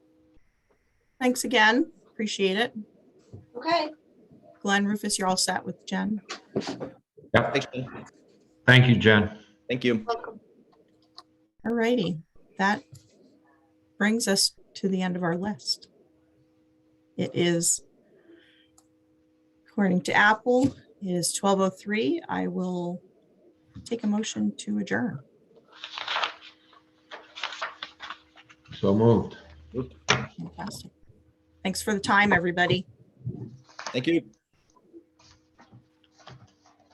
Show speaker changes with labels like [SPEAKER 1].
[SPEAKER 1] Thanks again. Appreciate it.
[SPEAKER 2] Okay,
[SPEAKER 1] Glenn Rufus, you're all set with Jen.
[SPEAKER 3] Thank you.
[SPEAKER 4] Thank you, Jen.
[SPEAKER 3] Thank you.
[SPEAKER 2] welcome.
[SPEAKER 1] All righty. That brings us to the end of our list. It is, according to Apple, it is 12:03. I will take a motion to adjourn.
[SPEAKER 4] So moved.
[SPEAKER 1] Fantastic. Thanks for the time, everybody.
[SPEAKER 3] Thank you.